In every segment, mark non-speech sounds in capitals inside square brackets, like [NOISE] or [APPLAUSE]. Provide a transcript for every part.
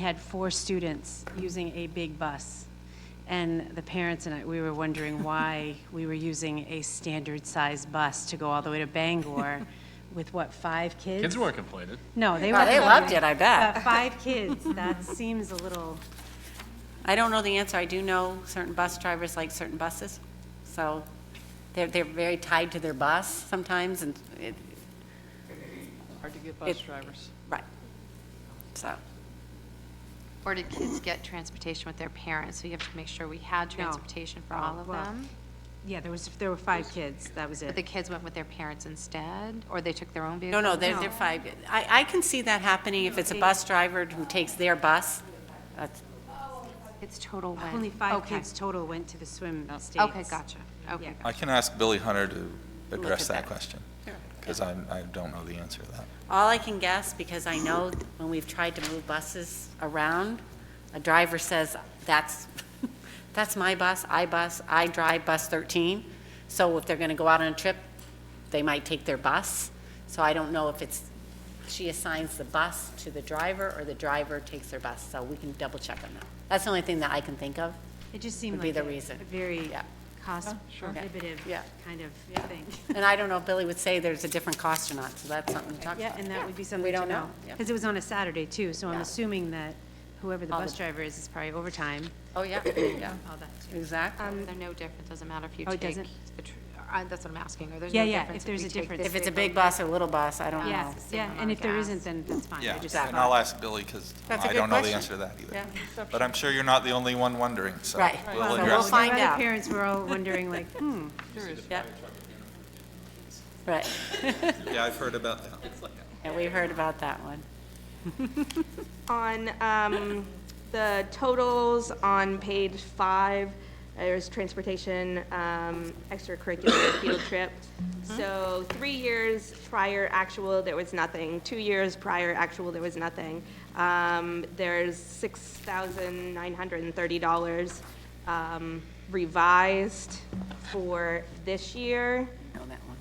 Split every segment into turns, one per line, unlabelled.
had four students using a big bus, and the parents and I, we were
[LAUGHS]
wondering why we were using a standard-sized bus to go all the way to
[LAUGHS]
Bangor with, what, five kids?
Kids weren't complaining.
No, they
Oh,
were.
they loved it, I bet.
Five kids,
[LAUGHS]
that seems a little,
I don't know the answer. I do know certain bus drivers like certain buses, so they're, they're very tied to their bus sometimes, and it,
Hard to get bus
It-
drivers.
right. So,
Or did kids get transportation with their parents? So you have to make sure we had transportation for all of
well,
them.
yeah, there was, there were five kids, that was
But the
it.
kids went with their parents instead, or they took their own
no,
vehicle?
no, they're, they're five. I, I can see that happening if it's a bus driver who takes their bus. That's-
It's total win.
Only five
Okay.
kids total went to the swim
Oh,
states.
Okay, gotcha.
Yeah.
Okay.
I can ask Billy Hunter to address
at
that
that.
question, because I, I don't know the answer to that.
All I can guess, because I know when we've tried to move buses around, a driver says, that's, [LAUGHS] that's my bus, I bus, I drive bus 13. So if they're going to go out on a trip, they might take their bus. So I don't know if it's, she assigns the bus to the driver or the driver takes their bus. So we can double check on that. That's the only thing that I can
[LAUGHS]
think of.
It just seemed
Would be
like
the
a
reason.
a very
Yeah.
cost prohibitive
Yeah.
kind of thing.
[LAUGHS] And I don't know if Billy would say there's a different cost or not, so that's something to talk about.
Yeah, and that would be
We
something to
don't
know.
Yeah.
Because it was on a Saturday, too, so I'm
Yeah.
assuming that whoever the
All
bus
the-
driver is, is probably overtime.
Oh, yeah, yeah,
All that.
exactly.
Um,
They're no different, doesn't matter if you
Oh,
take.
it doesn't?
the tr- I- That's what I'm asking, or there's
Yeah,
no
yeah,
difference.
if there's
we
a
take
difference.
this
If it's a
vehicle.
big bus or a little bus, I don't know.
Yeah,
same
yeah,
amount
and
of
if there
gas.
isn't, then that's fine. I
Yeah,
just-
and I'll ask Billy, because
That's a
I
good
don't know the
question.
answer to that either.
Yeah.
But I'm sure you're not the only one wondering, so
Right.
we'll
Right. So
address
we'll
it.
find
Other
out.
parents were all wondering, like, [LAUGHS] hmm,
Yeah. Right,
Yeah, I've heard about that.
and we heard about that one.
On um, the totals on page five, there's transportation, um,
[COUGHS]
extracurricular field trip.
Hmm?
So three years prior actual, there was nothing. Two years prior actual, there was nothing. Um, There's $6,930 um, revised for this year.
Know that one.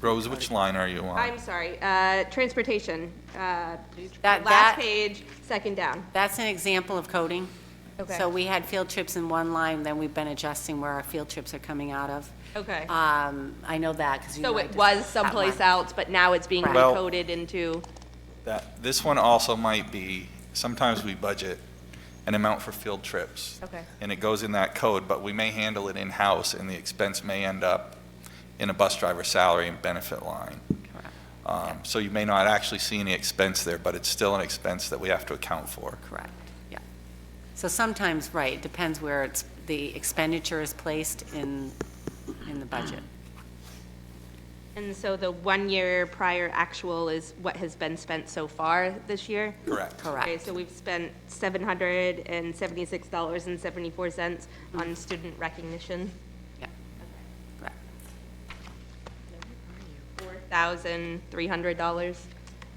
Rose, which line are you
I'm
on?
sorry, uh, transportation, uh,
That-
last
that-
page, second down.
That's an example of coding.
Okay.
So we had field trips in one line, then we've been adjusting where our field trips are coming out of.
Okay.
Um, I know that, because you know.
So
I
it
just- that
was
one.
someplace else, but now it's being
Well-
recoded into,
That, this one also might be, sometimes we budget an amount for field trips.
Okay.
And it goes in that code, but we may handle it in-house, and the expense may end up in a bus driver's salary and benefit line.
Correct.
Um, So you may not actually see any expense there, but it's still an expense that we have to account for.
Correct, yeah. So sometimes, right, it depends where it's, the expenditure is placed in, in the budget.
and so the one-year prior actual is what has been spent so far this year?
Correct.
Okay,
Correct.
so we've spent seven hundred and seventy-six dollars and seventy-four cents on student recognition,
Yeah. Correct.
four thousand three hundred dollars.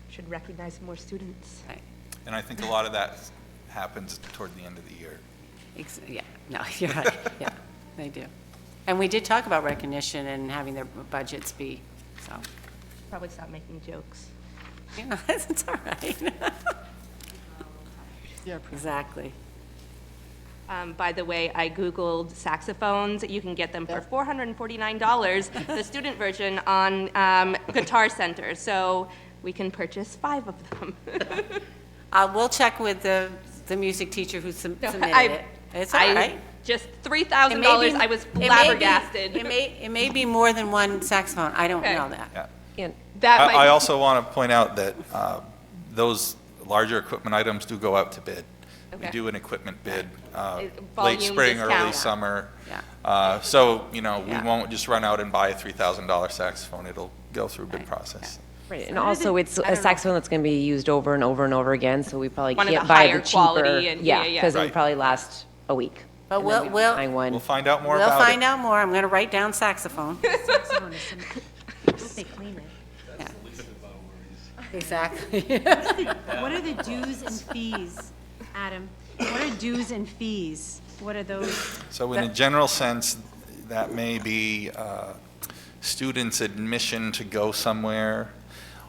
Should recognize more students.
Right.
And I think a lot of that happens toward the end of the year.
Ex- Yeah, no, [LAUGHS] you're right, yeah, they do. And we did talk about recognition and having their budgets be, so, [LAUGHS]
Probably stop making jokes.
yeah, it's all right. Exactly.
Um, by the way, I Googled saxophones. You can get them for $449, the student version on um, Guitar Center. So we can purchase five of them.
Uh, We'll check with the, the music teacher who sub-
[LAUGHS]
submitted
I-
it. It's all
I-
right.
Just
It may
$3,000.
be-
I was
it may be-
flabbergasted.
It may, it may be more than one saxophone, I don't
Okay.
know that.
Yeah.
That might-
I I also want to point out that uh, those larger equipment items do go out to bid. We
Okay.
do an equipment bid, uh,
It- volume
late spring, early
discount.
summer.
Yeah.
Uh, So, you know, we
Yeah.
won't just run out and buy a $3,000 saxophone. It'll go through bid process.
Right, and also it's a saxophone that's going to be used over and over and over again, so we probably
One of
can't
the
buy
higher
the
quality
cheaper.
and- yeah, yeah.
because it
Right.
would probably last a week.
But
and then
we'll-
we'd be
we'll-
Buying one.
We'll find out more
We'll
about it.
find out more, I'm going to write down saxophone.
someone is some- I hope they clean it.
Exactly.
What are the dues and fees, Adam? What are dues and fees? What are those?
So in a general sense, that may be uh, students' admission to go somewhere,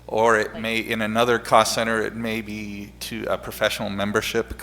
or it may, in another cost center, it may be to a professional membership